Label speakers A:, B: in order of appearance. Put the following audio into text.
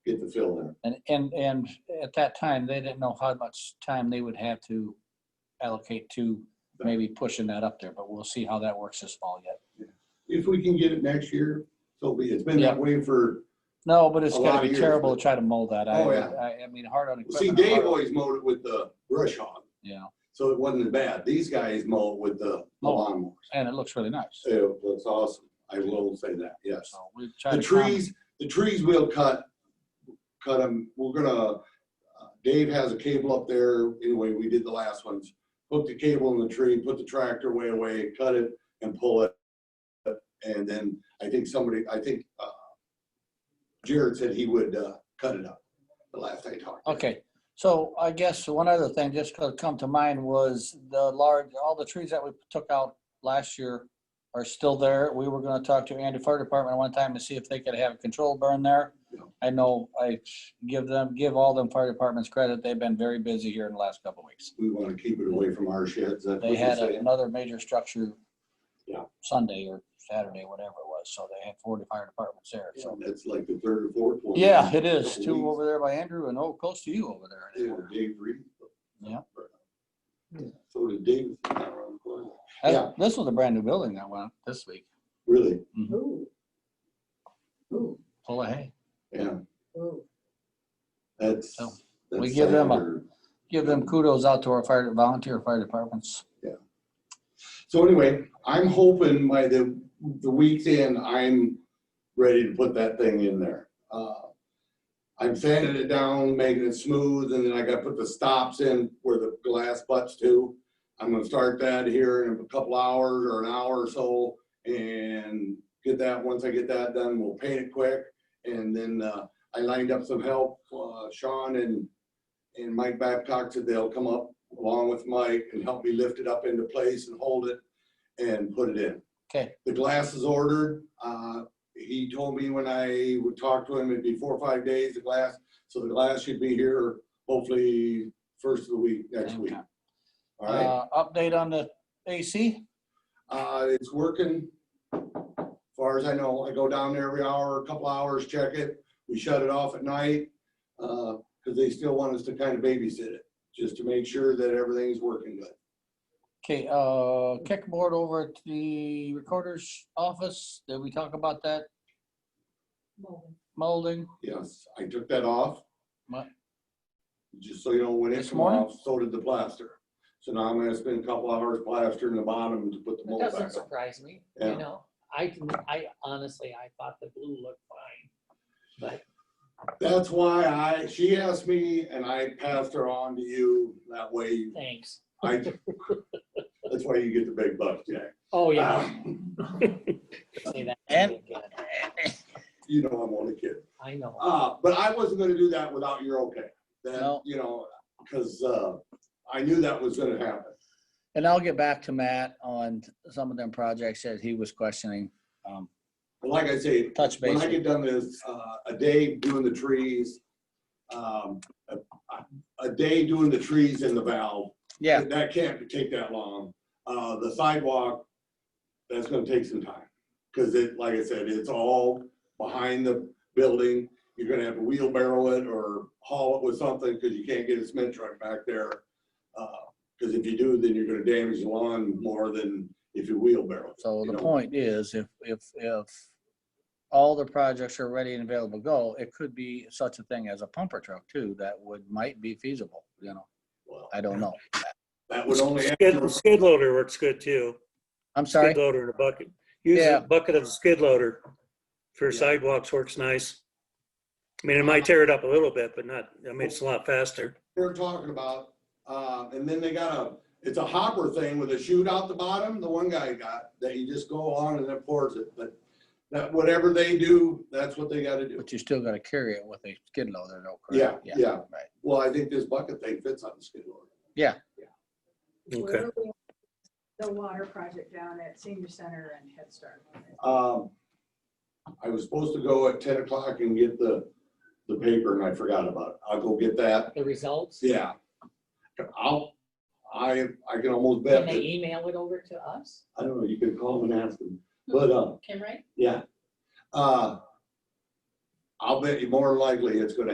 A: fill in.
B: And, and, and at that time, they didn't know how much time they would have to allocate to maybe pushing that up there, but we'll see how that works this fall yet.
A: If we can get it next year, so be, it. it's been
B: Yeah.
A: that way for,
B: No, but it's
A: A lot
B: gonna
A: of
B: be
A: years,
B: terrible
A: but-
B: to try to mold that. I,
A: Oh, yeah.
B: I, I mean, hard on equipment.
A: see,
B: hard
A: Dave
B: on-
A: always mowed it with the brush hog,
B: Yeah,
A: so it wasn't as bad. These guys mow it with the the lawnmowers.
B: and it looks really nice.
A: So that's awesome. I will say that, yes.
B: So we try
A: The
B: to. calm-
A: trees, the trees will cut, cut them, we're gonna, uh, Dave has a cable up there, anyway, we did the last ones. Hook the cable in the tree, put the tractor way away, cut it and pull it. And then I think somebody, I think, uh, Jared said he would, uh, cut it up, the last I talked.
B: Okay, so I guess one other thing just could come to mind was the large, all the trees that we took out last year are still there. We were gonna talk to Andy Fire Department one time to see if they could have a control burn there.
A: Yeah.
B: I know I give them, give all them fire departments credit. They've been very busy here in the last couple of weeks.
A: We wanna keep it away from our sheds, that's what
B: They
A: you
B: had
A: say.
B: another major structure
A: Yeah.
B: Sunday or Saturday, whatever it was, so they had forty fire departments there, so.
A: That's like the third or fourth one.
B: Yeah, it is.
A: Couple
B: Two
A: weeks.
B: over there by Andrew and oh, close to you over
A: They
B: there.
A: were Dave Reed.
B: Yeah.
A: So did Dave. not around the corner.
B: That-
A: Yeah.
B: This was a brand new building that went up this week,
A: Really?
B: Mm-hmm.
C: Ooh. Ooh,
B: full of hay.
A: Yeah,
C: ooh.
A: that's.
B: So,
A: that's
B: we give them a-
A: standard.
B: Give them kudos out to our fire, volunteer fire departments.
A: So anyway, I'm hoping by the, the weekend, I'm ready to put that thing in there. Uh, I'm sanding it down, making it smooth, and then I gotta put the stops in where the glass butts to. I'm gonna start that here in a couple hours or an hour or so and get that, once I get that done, we'll paint it quick. And then, uh, I lined up some help, uh, Sean and, and Mike Babcock said they'll come up along with Mike and help me lift it up into place and hold it and put it in.
B: Okay.
A: The glass is ordered. Uh, he told me when I would talk to him, it'd be four or five days, the glass. So the glass should be here hopefully first of the week, next week.
B: Okay.
A: All right,
B: Uh, update on the AC?
A: uh, it's working. Far as I know, I go down there every hour, a couple hours, check it. We shut it off at night. Uh, cause they still want us to kind of babysit it, just to make sure that everything's working good.
B: Okay, uh, kickboard over at the recorder's office. Did we talk about that
C: Moment.
B: molding?
A: Yes, I took that off.
B: What?
A: Just so you know, when it
B: This
A: came
B: morning?
A: off, so did the plaster. So now I'm gonna spend a couple hours plastering the bottom to put the
C: That
A: mold
C: doesn't
A: back up.
C: surprise me,
A: Yeah.
C: you know, I can, I honestly, I thought the blue looked fine.
A: That's why I, she asked me and I passed her on to you. That way
C: Thanks.
A: I, that's why you get the big bucks, Jack.
C: Oh, yeah.
A: Um,
C: Say that
B: And-
C: again.
A: You know I'm only kidding.
C: I know.
A: Uh, but I wasn't gonna do that without your okay. That,
B: No.
A: you know, cause, uh, I knew that was gonna happen.
B: And I'll get back to Matt on some of them projects that he was questioning. Um,
A: But like I say,
B: touch
A: when I
B: base.
A: get done this, uh, a day doing the trees, um, a, a day doing the trees in the valve.
B: Yeah,
A: That can't take that long. Uh, the sidewalk, that's gonna take some time. Cause it, like I said, it's all behind the building. You're gonna have to wheelbarrow it or haul it with something, cause you can't get a cement truck back there. Uh, Cause if you do, then you're gonna damage the lawn more than if you wheelbarrow. it,
B: so
A: you
B: the
A: know?
B: point is if, if, if all the projects are ready and available to go, it could be such a thing as a pumper truck too, that would, might be feasible, you know?
A: Well,
B: I don't know.
A: That would only.
D: Skid, skid loader works good too.
B: I'm sorry.
D: Skid loader and a bucket. Use
B: Yeah.
D: a bucket of skid loader for
A: Yeah.
D: sidewalks works nice. I mean, it might tear it up a little bit, but not, I mean, it's a lot faster.
A: they're talking about, uh, and then they got a, it's a hopper thing with a chute out the bottom, the one guy got, that you just go on and it pours it, but that, whatever they do, that's what they gotta do.
B: But you still gotta carry it with a skid loader, though,
A: Yeah,
B: correct?
A: yeah.
B: right.
A: Well, I think this bucket thing fits on the skid loader.
D: Okay.
E: The water project down at senior center and Head Start.
A: Um, I was supposed to go at ten o'clock and get the, the paper and I forgot about it. I'll go get that.
C: The results?
A: Yeah. I'll, I, I can almost bet
C: Can they
A: that,
C: email it over to us?
A: I don't know, you could call them and ask them, but, uh,
C: Kim, right?
A: yeah. Uh, I'll bet you more likely it's gonna